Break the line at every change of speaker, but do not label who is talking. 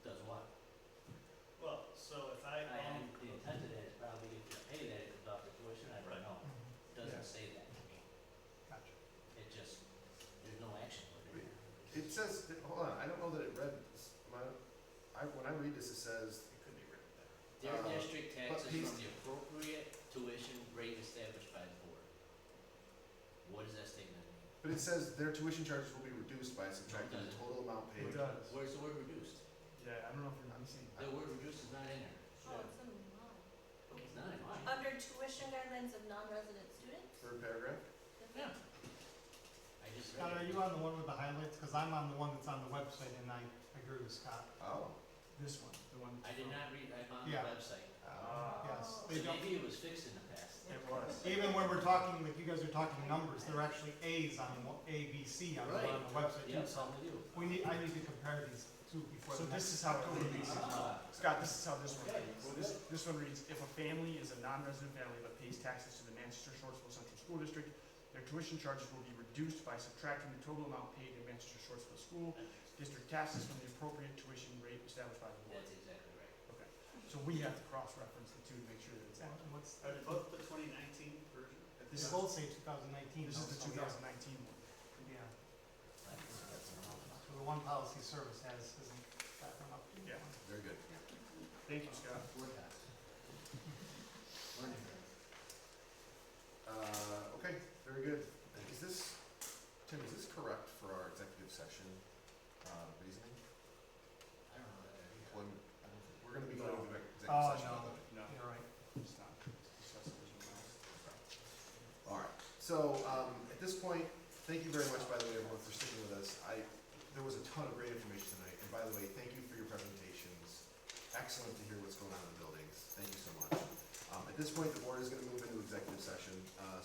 It says, that- hold on, I don't know that it read, this. my, I, when I read this, it says,
It could be written better.
Their
Uh,
district
but
taxes
he's-
from the appropriate tuition rate established by the board. What does that statement mean?
but it says their tuition charges will be reduced by subtracting the total amount paid.
It does.
Where's the word reduced?
Yeah, I don't know if you're missing.
The word reduced is not in there.
Oh, it's in line.
It's not in
Uh,
mine.
Under tuition guidelines of non-resident students?
Per paragraph?
Yeah. I just
Scott, are
read it.
you on the one with the highlights? Because I'm on the one that's on the website, and I agree with Scott.
Oh,
This one, the one.
I did not read, I'm on the
Yeah.
website.
Ah.
Yes,
Oh.
they
So
don't,
maybe it was fixed in the past.
It was.
even when we're talking, like you guys are talking numbers, they're actually As on one- A, B, C on the one on the website.
Yeah, so we do.
We need, I need to compare these two before
So
the next.
this is how it would be.
Ah,
Scott, this is how this one
Okay,
reads.
we're
This, this one reads, if a family is a non-resident family but pays taxes to the Manchester Shortsville Central School District, their tuition charges will be reduced by subtracting the total amount paid to Manchester Shortsville School District taxes from the appropriate tuition rate established by the board.
That's exactly right.
So we have to cross-reference the two to make sure that it's accurate.
What's,
Are they both the twenty nineteen version?
This
this
is-
both say 2019.
This
though,
is the
so
two
yeah.
thousand nineteen one.
Yeah,
That's- that's wrong.
so the one policy service has, isn't that one up?
Yeah.
very good.
Thank you, Scott.
We're done. We're done.
Uh, okay, very good. Is this, Tim, is this correct for our executive session, uh, reasoning?
I don't know that I read
When,
that. I don't think-
we're gonna be going to executive
Oh,
session.
no.
Uh, No,
You're right.
it's not. It's just original.
All right, so, um, at this point, thank you very much, by the way, everyone, for sticking with us. I, there was a ton of great information tonight, and by the way, thank you for your presentations. Excellent to hear what's going on in the buildings, thank you so much. Um, at this point, the board is gonna move into executive session, uh,